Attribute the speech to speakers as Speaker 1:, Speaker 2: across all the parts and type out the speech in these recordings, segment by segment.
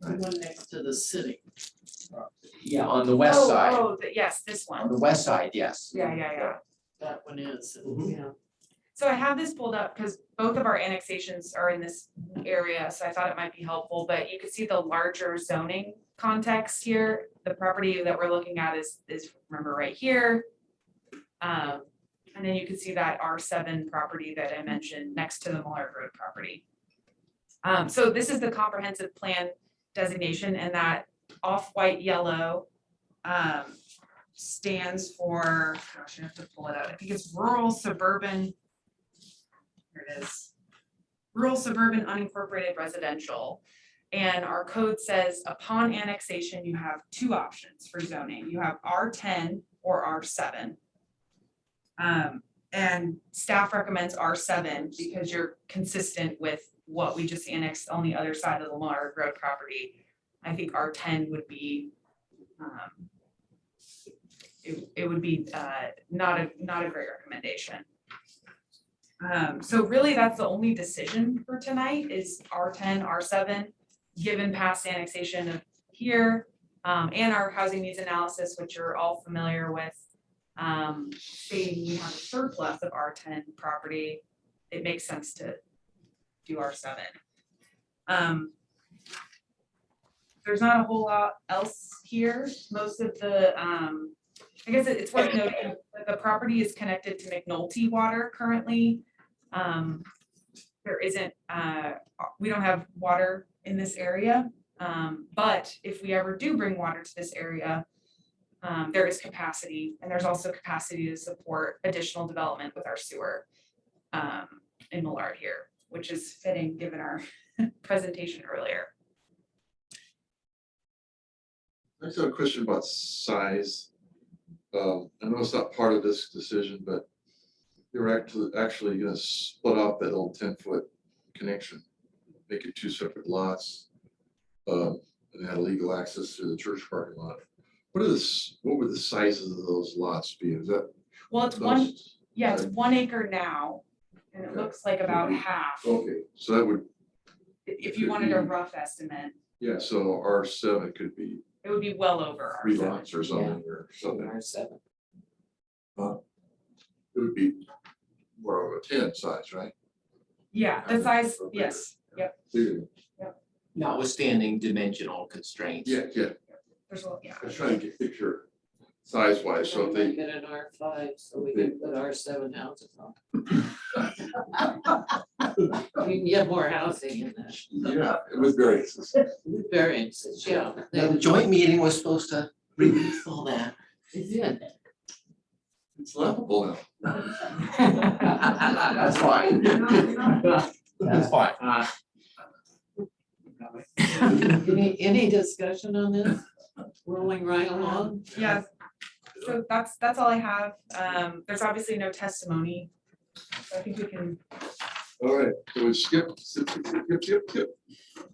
Speaker 1: the one next to the city.
Speaker 2: Yeah, on the west side,
Speaker 3: Oh, oh, the- yes, this
Speaker 2: on
Speaker 3: one.
Speaker 2: the west side, yes.
Speaker 3: Yeah, yeah, yeah.
Speaker 1: That one is,
Speaker 2: Mhm.
Speaker 1: yeah.
Speaker 3: So I have this pulled up because both of our annexations are in this area, so I thought it might be helpful, but you could see the larger zoning context here. The property that we're looking at is, is, remember, right here. Um, and then you can see that R seven property that I mentioned next to the Muller Road property. Um, so this is the comprehensive plan designation and that off-white yellow um, stands for, gosh, I have to pull it out. I think it's rural suburban here it is. Rural suburban unincorporated residential. And our code says upon annexation, you have two options for zoning. You have R ten or R seven. Um, and staff recommends R seven because you're consistent with what we just annexed on the other side of the Lamar Road property. I think R ten would be, um, it, it would be, uh, not a, not a great recommendation. Um, so really, that's the only decision for tonight is R ten, R seven, given past annexation of here. um, and our housing needs analysis, which you're all familiar with. Um, stating we have a surplus of R ten property, it makes sense to do R seven. Um. There's not a whole lot else here, most of the, um, I guess it- it's worth noting that the property is connected to McNulty Water currently. Um, there isn't, uh, we don't have water in this area. Um, but if we ever do bring water to this area, um, there is capacity and there's also capacity to support additional development with our sewer um, in Millard here, which is fitting given our presentation earlier.
Speaker 4: I just have a question about size. Um, I know it's not part of this decision, but you're actually, actually gonna split off that old ten-foot connection, make it two separate lots. um, And have legal access through the church parking lot. What are the s what would the sizes of those lots be? Is that?
Speaker 3: Well, it's one,
Speaker 4: those-
Speaker 3: yeah, it's one acre now and it looks like about
Speaker 4: Mm-hmm.
Speaker 3: half.
Speaker 4: Okay, so that would,
Speaker 3: If you wanted a rough estimate,
Speaker 4: yeah, so R seven could be
Speaker 3: it would be well over. our
Speaker 4: three
Speaker 3: seven.
Speaker 4: lots or something or something.
Speaker 1: R seven.
Speaker 4: It would be more of a ten size, right?
Speaker 3: Yeah, the
Speaker 4: Okay.
Speaker 3: size,
Speaker 4: Okay.
Speaker 3: yes, yep,
Speaker 4: Bigger.
Speaker 2: Notwithstanding dimensional constraints.
Speaker 4: Yeah, yeah.
Speaker 3: there's a, lot- yeah.
Speaker 4: I was trying to get a picture size wise, so if they,
Speaker 1: Get an R five, so we can put R seven houses on. We can get more housing in that,
Speaker 4: yeah, it was very.
Speaker 1: with variances, yeah.
Speaker 5: Now, the joint meeting was supposed to release all that.
Speaker 1: It
Speaker 4: It's laughable now.
Speaker 5: That's fine. That's fine.
Speaker 1: did. Any, any discussion on this? Rolling right along?
Speaker 3: Yeah, so that's, that's all I have. Um, there's obviously no testimony. So I think we can,
Speaker 4: All right, so we skip, skip, skip, skip, skip, skip.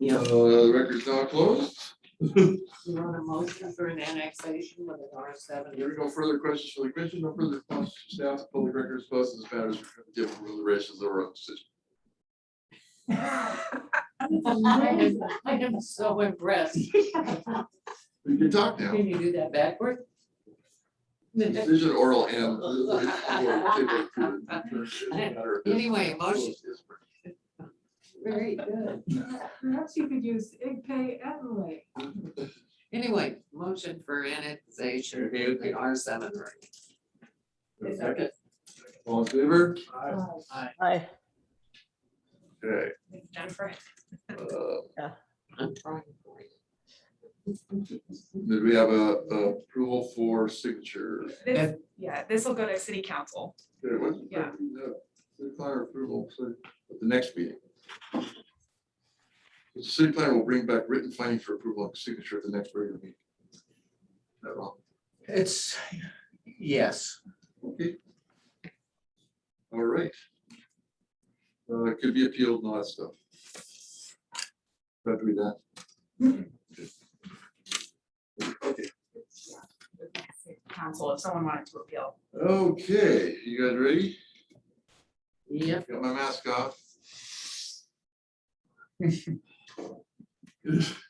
Speaker 1: Yeah.
Speaker 4: Uh, the record's now closed.
Speaker 1: You want a motion for an annexation with an R seven?
Speaker 4: There are no further questions for the commission, no further response to staff, public records, plus this matters given deliberations over a decision.
Speaker 1: I am- I am so impressed.
Speaker 4: We can talk now.
Speaker 1: Can you do that backward?
Speaker 4: Decision oral and. Anyway,
Speaker 1: Anyway, motion. Very good.
Speaker 6: Perhaps you could use IGPay Adelaide.
Speaker 1: Anyway, motion for annexation of the R seven right.
Speaker 4: Second. All in favor?
Speaker 7: Hi.
Speaker 4: Okay.
Speaker 3: Jennifer,
Speaker 4: uh,
Speaker 1: I'm trying for you.
Speaker 4: Did we have a a approval for signature?
Speaker 3: this, yeah, this will go to city council.
Speaker 4: There was-
Speaker 3: Yeah.
Speaker 4: no, City planner approval, so at the next meeting. The city planner will bring back written findings for approval and signature at the next regular meeting. Is that wrong?
Speaker 2: It's, yes.
Speaker 4: Okay. All right. Uh, it could be appealed and all that stuff. Don't do that. Okay,
Speaker 3: Council, if someone wanted to appeal.
Speaker 4: okay, you guys ready?
Speaker 1: Yep,
Speaker 4: Got my mask off.